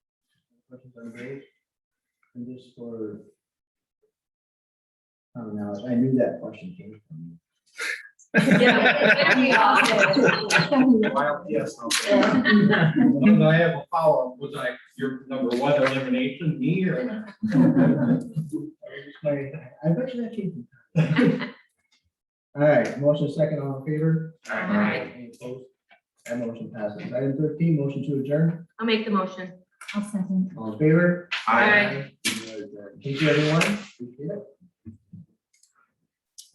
questions on grades? And just for. I don't know, I knew that question came from Yes. And I have a follow-up, was I your number one elimination, me or not? you. I I bet you that came from. All right, motion second all in favor? Any opposed? That motion passes. Item thirteen, motion to adjourn, I'll make the motion. I'll second. all in favor? Aye. We are adjourned. Thank you, everyone. Appreciate it.